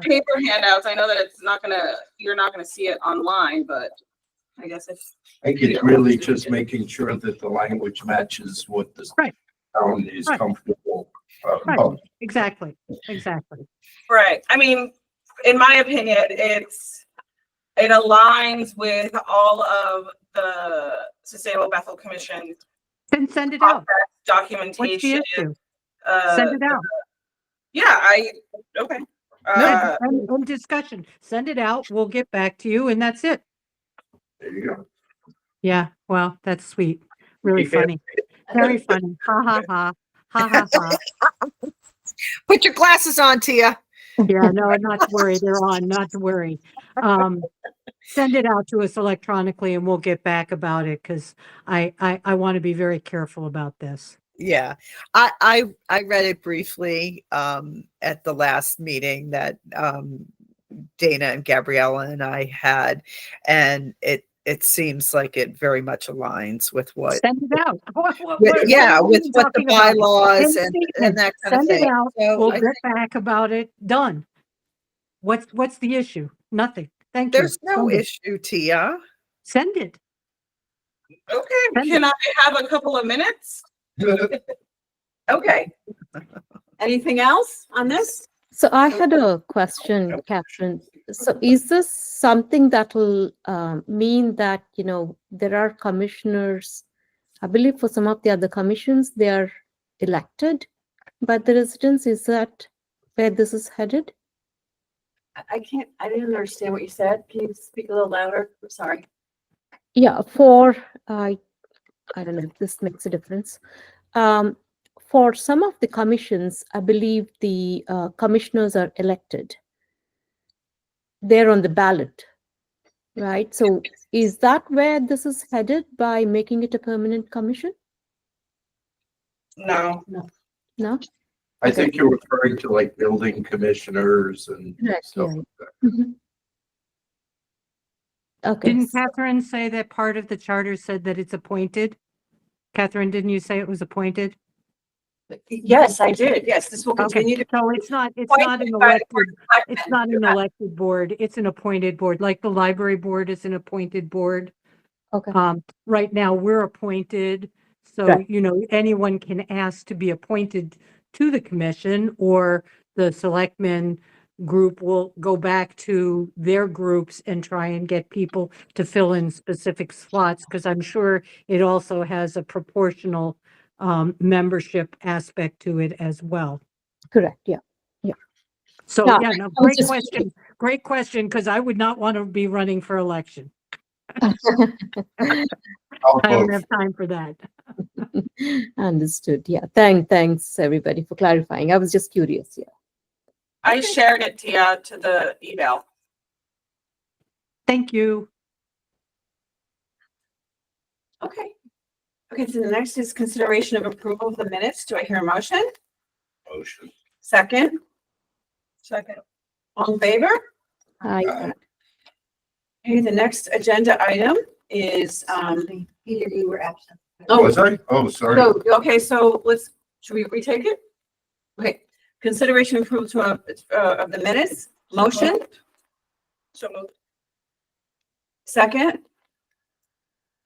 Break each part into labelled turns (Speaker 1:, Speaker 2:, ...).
Speaker 1: paper handouts. I know that it's not gonna, you're not gonna see it online, but I guess if
Speaker 2: I think it's really just making sure that the language matches what the
Speaker 3: Right.
Speaker 2: town is
Speaker 3: Right.
Speaker 2: comfortable. uh,
Speaker 3: Right.
Speaker 2: about.
Speaker 3: Exactly, exactly.
Speaker 1: Right. I mean, in my opinion, it's, it aligns with all of the Sustainable Bethel Commission
Speaker 3: Then send it out. What's the
Speaker 1: documentation.
Speaker 3: issue?
Speaker 1: uh,
Speaker 3: Send it out.
Speaker 1: Yeah, I, okay. Uh,
Speaker 3: End- End end discussion. Send it out. We'll get back to you and that's it.
Speaker 2: There you go.
Speaker 3: Yeah, well, that's sweet. Really
Speaker 2: Very
Speaker 3: funny. Very funny. Ha ha ha. Ha ha ha.
Speaker 4: Put your glasses on, Tia.
Speaker 3: Yeah, no, not to worry. They're on, not to worry. Um, send it out to us electronically and we'll get back about it because I, I, I want to be very careful about this.
Speaker 4: Yeah, I, I, I read it briefly, um, at the last meeting that, um, Dana and Gabriella and I had, and it, it seems like it very much aligns with what,
Speaker 3: Send it out. What- what-
Speaker 4: with-
Speaker 3: what- what
Speaker 4: yeah,
Speaker 3: are we
Speaker 4: with what the
Speaker 3: talking about?
Speaker 4: bylaws
Speaker 3: Send
Speaker 4: and, and
Speaker 3: statements.
Speaker 4: that kind of
Speaker 3: Send it
Speaker 4: thing.
Speaker 3: out.
Speaker 4: So
Speaker 3: We'll
Speaker 4: I
Speaker 3: get back about it. Done. What's, what's the issue? Nothing. Thank you.
Speaker 4: There's no
Speaker 3: Send it.
Speaker 4: issue, Tia.
Speaker 3: Send it.
Speaker 1: Okay,
Speaker 3: Send it.
Speaker 1: can I have a couple of minutes? Okay.
Speaker 5: Anything else on this?
Speaker 6: So I had a question, Catherine. So is this something that will um, mean that, you know, there are commissioners, I believe for some of the other commissions, they are elected by the residents? Is that where this is headed?
Speaker 5: I- I can't, I didn't understand what you said. Can you speak a little louder? I'm sorry.
Speaker 6: Yeah, for, I, I don't know if this makes a difference. Um, for some of the commissions, I believe the uh, commissioners are elected. They're on the ballot, right? So is that where this is headed by making it a permanent commission?
Speaker 1: No,
Speaker 6: No?
Speaker 2: I think you're referring to like building commissioners and stuff.
Speaker 6: yeah.
Speaker 2: like that.
Speaker 6: Mhm. Okay,
Speaker 3: Didn't Catherine say that part of the charter said that it's appointed? Catherine, didn't you say it was appointed?
Speaker 5: Yes, I did. Yes, this will continue
Speaker 3: Okay,
Speaker 5: to.
Speaker 3: so it's not, it's not an
Speaker 1: Appointed by the
Speaker 3: elected, it's not an elected board, it's an appointed board, like the library board is an appointed board.
Speaker 6: okay,
Speaker 3: Um, right now, we're appointed, so,
Speaker 6: Right.
Speaker 3: you know, anyone can ask to be appointed to the commission or the selectmen group will go back to their groups and try and get people to fill in specific slots, because I'm sure it also has a proportional um, membership aspect to it as well.
Speaker 6: correct, yeah.
Speaker 3: So,
Speaker 6: Yeah,
Speaker 3: yeah, no, great
Speaker 6: just-
Speaker 3: question, great question, because I would not want to be running for election.
Speaker 2: I'll
Speaker 3: I don't
Speaker 2: vote.
Speaker 3: have time for that.
Speaker 6: Understood, yeah. Thank, thanks, everybody, for clarifying. I was just curious, yeah.
Speaker 1: I shared it, Tia, to the email.
Speaker 3: Thank you.
Speaker 5: Okay. Okay, so the next is consideration of approval of the minutes. Do I hear a motion?
Speaker 2: Motion.
Speaker 5: Second,
Speaker 1: Second.
Speaker 5: all in favor?
Speaker 6: Hi.
Speaker 2: Uh,
Speaker 5: Okay, the next agenda item is, um,
Speaker 7: Peter, you were absent.
Speaker 5: oh,
Speaker 2: Was I? Oh, sorry.
Speaker 5: So, okay, so let's, should we retake it? Okay, consideration approval to, uh, uh, of the minutes, motion,
Speaker 1: So moved.
Speaker 5: second?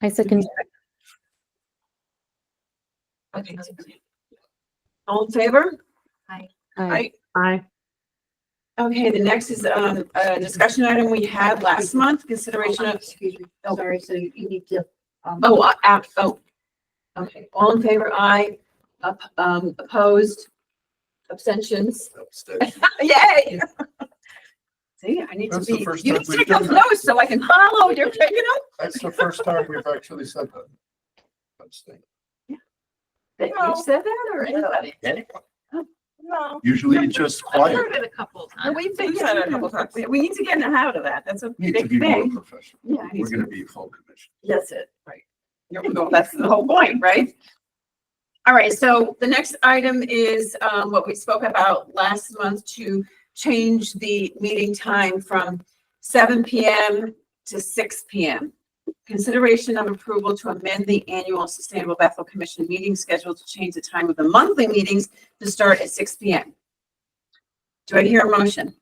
Speaker 6: I second
Speaker 5: Okay. All in favor?
Speaker 6: I
Speaker 3: Bye.
Speaker 5: Okay, the next is, um, a discussion item we had last month, consideration of,
Speaker 7: Excuse me, sorry, so you need to. um,
Speaker 5: oh, uh, app, oh. Okay, all in favor, aye, Up- um, opposed, abstentions,
Speaker 2: That's that.
Speaker 5: yay! See, I need to
Speaker 2: That's the
Speaker 5: be,
Speaker 2: first
Speaker 5: you
Speaker 2: time
Speaker 5: need
Speaker 2: we've
Speaker 5: to take
Speaker 2: done
Speaker 5: those
Speaker 2: that.
Speaker 5: notes so I can follow, you're picking up.
Speaker 2: That's the first time we've actually said that. That's the-
Speaker 5: That
Speaker 1: No.
Speaker 5: you said that or anybody? Oh,
Speaker 1: No.
Speaker 2: Usually it's just quiet.
Speaker 7: it a couple of
Speaker 5: No, We've been
Speaker 1: We've
Speaker 5: said
Speaker 1: said
Speaker 5: it
Speaker 1: a couple times.
Speaker 5: We, we need to get in and out of that. That's a
Speaker 2: Need to
Speaker 5: big
Speaker 2: be more
Speaker 5: thing.
Speaker 2: professional.
Speaker 5: Yeah, I need
Speaker 2: We're
Speaker 5: to-
Speaker 2: gonna be a full commission.
Speaker 5: that's it, right. There we go. That's the whole point, right? All right, so the next item is, um, what we spoke about last month to change the meeting time from seven PM to six PM. Consideration of approval to amend the annual Sustainable Bethel Commission meeting schedule to change the time of the monthly meetings to start at six PM. Do I hear a motion?